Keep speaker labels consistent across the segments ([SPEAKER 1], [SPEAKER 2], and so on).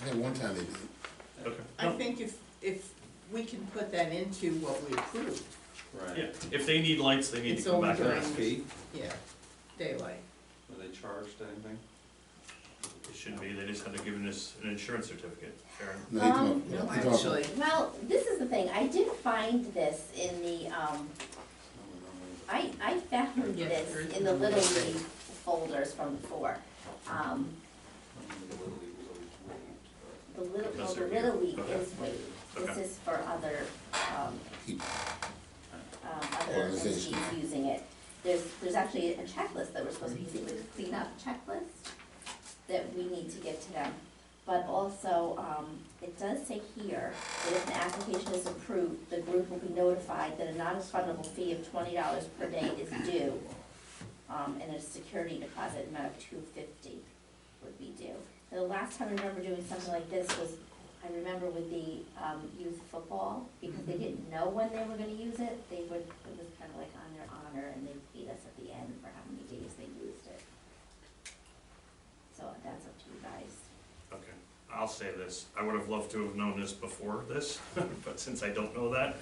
[SPEAKER 1] I think one time they did.
[SPEAKER 2] Okay.
[SPEAKER 3] I think if, if we can put that into what we approved,
[SPEAKER 2] Yeah,
[SPEAKER 4] Right.
[SPEAKER 2] if they need lights, they need
[SPEAKER 3] It's
[SPEAKER 2] to come
[SPEAKER 3] only
[SPEAKER 2] back.
[SPEAKER 3] during-
[SPEAKER 2] They
[SPEAKER 4] Last fee,
[SPEAKER 3] yeah, daylight.
[SPEAKER 4] were they charged anything?
[SPEAKER 2] shouldn't be, they just had to give us an insurance certificate, Karen.
[SPEAKER 1] No, he
[SPEAKER 5] Um,
[SPEAKER 1] talked-
[SPEAKER 3] No,
[SPEAKER 1] he talked-
[SPEAKER 3] actually,
[SPEAKER 5] Well, this is the thing, I did find this in the, um,
[SPEAKER 4] I don't know.
[SPEAKER 5] I, I found
[SPEAKER 3] Yeah, there is
[SPEAKER 5] this in the
[SPEAKER 3] no
[SPEAKER 5] Little
[SPEAKER 3] mistake.
[SPEAKER 5] League folders from before. Um,
[SPEAKER 4] I remember the Little League was always waived, but-
[SPEAKER 5] the Little, well,
[SPEAKER 2] Those
[SPEAKER 5] the
[SPEAKER 2] are here.
[SPEAKER 5] Little League
[SPEAKER 2] Okay.
[SPEAKER 5] is waived, this
[SPEAKER 2] Okay.
[SPEAKER 5] is for other, um,
[SPEAKER 1] he-
[SPEAKER 5] um, other entities
[SPEAKER 1] Organization.
[SPEAKER 5] using it. There's, there's actually a checklist that we're supposed to be doing, a cleanup checklist that we need to give to them. But also, um, it does say here that if an application is approved, the group will be notified that a non-refundable fee of twenty dollars per day is due. Um, and a security deposit amount of two fifty would be due. The last time I remember doing something like this was, I remember with the, um, youth football, because they didn't know when they were gonna use it, they would, it was kind of like on their honor, and they paid us at the end for how many days they used it. So that's up to you guys.
[SPEAKER 2] Okay, I'll say this, I would have loved to have known this before this, but since I don't know that,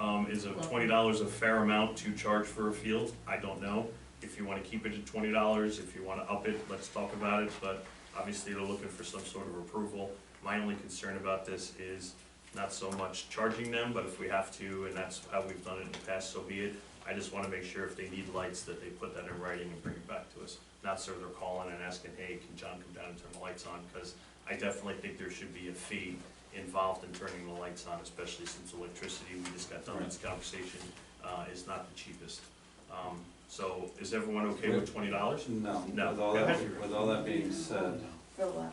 [SPEAKER 2] um, is a twenty dollars a fair amount to charge for a field? I don't know. If you wanna keep it at twenty dollars, if you wanna up it, let's talk about it, but obviously they're looking for some sort of approval. My only concern about this is not so much charging them, but if we have to, and that's how we've done it in the past, so be it. I just wanna make sure if they need lights, that they put that in writing and bring it back to us. Not so they're calling and asking, hey, can John come down and turn the lights on? Cause I definitely think there should be a fee involved in turning the lights on, especially since electricity, we just got done with this conversation, uh, is not the cheapest. Um, so is everyone okay with twenty dollars?
[SPEAKER 4] No,
[SPEAKER 2] No.
[SPEAKER 4] with all that, with all that being said,
[SPEAKER 5] For what?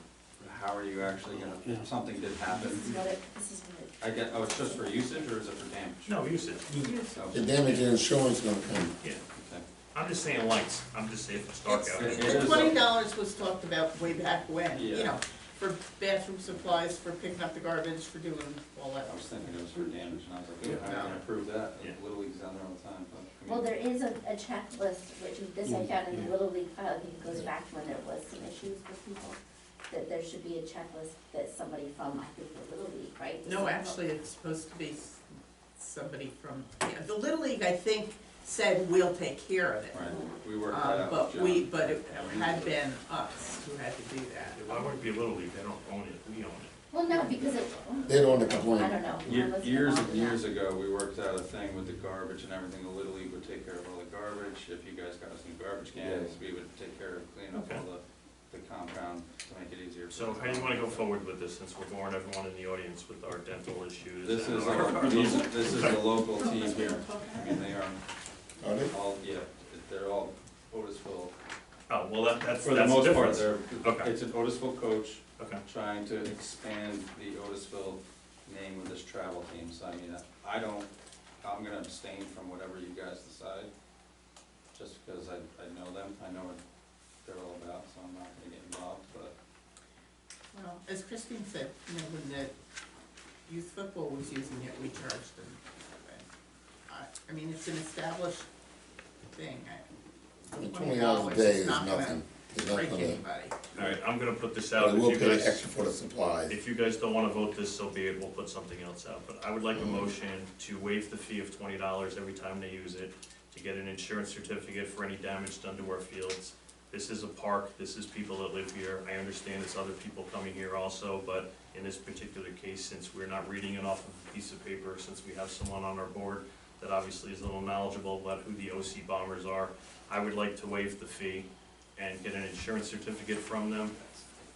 [SPEAKER 4] how are you actually gonna, if something did
[SPEAKER 5] uh, This
[SPEAKER 4] happen,
[SPEAKER 5] is what it, this is what it.
[SPEAKER 4] I get, oh, it's just for usage or is it for damage? Oh,
[SPEAKER 2] No, you said,
[SPEAKER 4] So,
[SPEAKER 1] The damage and insurance gonna come.
[SPEAKER 2] yeah,
[SPEAKER 4] okay.
[SPEAKER 2] I'm just saying lights, I'm just saying if it's dark out.
[SPEAKER 4] It's-
[SPEAKER 3] the twenty dollars was talked about way back when, you
[SPEAKER 4] Yeah.
[SPEAKER 3] know, for bathroom supplies, for picking up the garbage, for doing all that.
[SPEAKER 4] I was thinking it was for damage and I was like,
[SPEAKER 2] Yeah.
[SPEAKER 4] oh, how can I prove that?
[SPEAKER 2] Yeah.
[SPEAKER 4] Little League's down there all the time, but. I
[SPEAKER 5] Well,
[SPEAKER 4] mean-
[SPEAKER 5] there is a, a checklist, which is- this I
[SPEAKER 4] Mm,
[SPEAKER 5] found in the Little League file, I think it goes back to when there was some issues with people, that there should be a checklist that somebody from, I think, the Little League, right?
[SPEAKER 3] No, actually, it's supposed to be s- somebody from, yeah, the Little League, I think, said, we'll take care of it.
[SPEAKER 4] Right, we worked that
[SPEAKER 3] Um,
[SPEAKER 4] out.
[SPEAKER 3] but
[SPEAKER 4] with
[SPEAKER 3] we,
[SPEAKER 4] John.
[SPEAKER 3] but it had been us who had to do that.
[SPEAKER 2] Why would it be a Little League, they don't own it, we own it.
[SPEAKER 5] Well, no, because it,
[SPEAKER 1] They don't wanna
[SPEAKER 5] I
[SPEAKER 1] complain.
[SPEAKER 5] don't know.
[SPEAKER 4] Ye- Years and years ago, we worked out a thing with the garbage and everything, the Little League would take care of all the garbage, if you guys got us new garbage cans, we would take care of cleaning up all the, the compound to make it easier. for
[SPEAKER 2] So
[SPEAKER 4] the
[SPEAKER 2] how do you wanna go
[SPEAKER 4] compound.
[SPEAKER 2] forward with this, since we're boring everyone in the audience with our dental issues?
[SPEAKER 4] This
[SPEAKER 2] and
[SPEAKER 4] is,
[SPEAKER 2] our-
[SPEAKER 4] our- these- this is the local team here, I mean, they are
[SPEAKER 1] Are Oh, they?
[SPEAKER 4] all, yeah, they're all Otisville.
[SPEAKER 2] Oh, well, that, that's, that's
[SPEAKER 4] For the
[SPEAKER 2] the
[SPEAKER 4] most part,
[SPEAKER 2] difference.
[SPEAKER 4] they're,
[SPEAKER 2] Okay.
[SPEAKER 4] it's an Otisville coach
[SPEAKER 2] Okay,
[SPEAKER 4] trying to expand the Otisville name with this travel team, so I mean, I don't, I'm gonna abstain from whatever you guys decide, just because I, I know them, I know what they're all about, so I'm not gonna get involved, but
[SPEAKER 3] Well, as Christine said, you know, when the youth football was using it, we charged them. I, I mean, it's an established thing, I.
[SPEAKER 1] Twenty hours a day
[SPEAKER 3] it's
[SPEAKER 1] is
[SPEAKER 3] not gonna
[SPEAKER 1] nothing. It's not
[SPEAKER 3] Break
[SPEAKER 1] gonna,
[SPEAKER 3] anybody.
[SPEAKER 2] all right, I'm gonna put this out.
[SPEAKER 1] but
[SPEAKER 2] if
[SPEAKER 1] we'll
[SPEAKER 2] you
[SPEAKER 1] pay
[SPEAKER 2] guys-
[SPEAKER 1] extra for the supplies.
[SPEAKER 2] If you guys don't wanna vote this, so be it, we'll put something else out, but I would like a motion to waive the fee of twenty dollars every time they use it, to get an insurance certificate for any damage done to our fields. This is a park, this is people that live here, I understand it's other people coming here also, but in this particular case, since we're not reading it off of a piece of paper, since we have someone on our board that obviously is a little knowledgeable about who the OC bombers are, I would like to waive the fee and get an insurance certificate from them,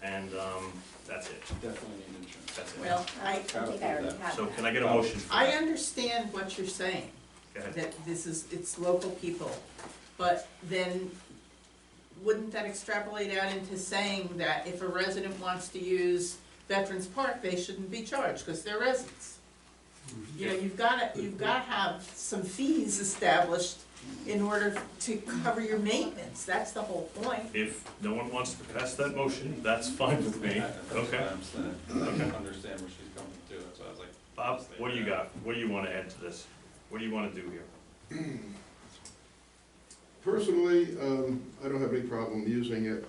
[SPEAKER 2] and, um, that's it.
[SPEAKER 4] definitely need insurance.
[SPEAKER 2] That's it.
[SPEAKER 3] Well, I,
[SPEAKER 5] I think I already have
[SPEAKER 2] So
[SPEAKER 5] that.
[SPEAKER 2] can I get a motion for
[SPEAKER 3] I
[SPEAKER 2] that?
[SPEAKER 3] understand what you're saying,
[SPEAKER 2] Go ahead.
[SPEAKER 3] that this is, it's local people, but then wouldn't that extrapolate out into saying that if a resident wants to use Veterans Park, they shouldn't be charged, because they're residents?
[SPEAKER 2] Mm-hmm.
[SPEAKER 3] You know, you've gotta, you've gotta have some fees established in order to cover your maintenance, that's the whole point.
[SPEAKER 2] If no one wants to pass that motion, that's fine with me.
[SPEAKER 4] I- that's what
[SPEAKER 2] Okay.
[SPEAKER 4] I'm saying. I don't understand where she's coming to, that's why I was like.
[SPEAKER 2] Bob, what do you got? What do you want to add to this? What do you want to do here?
[SPEAKER 6] Personally, um, I don't have any problem using it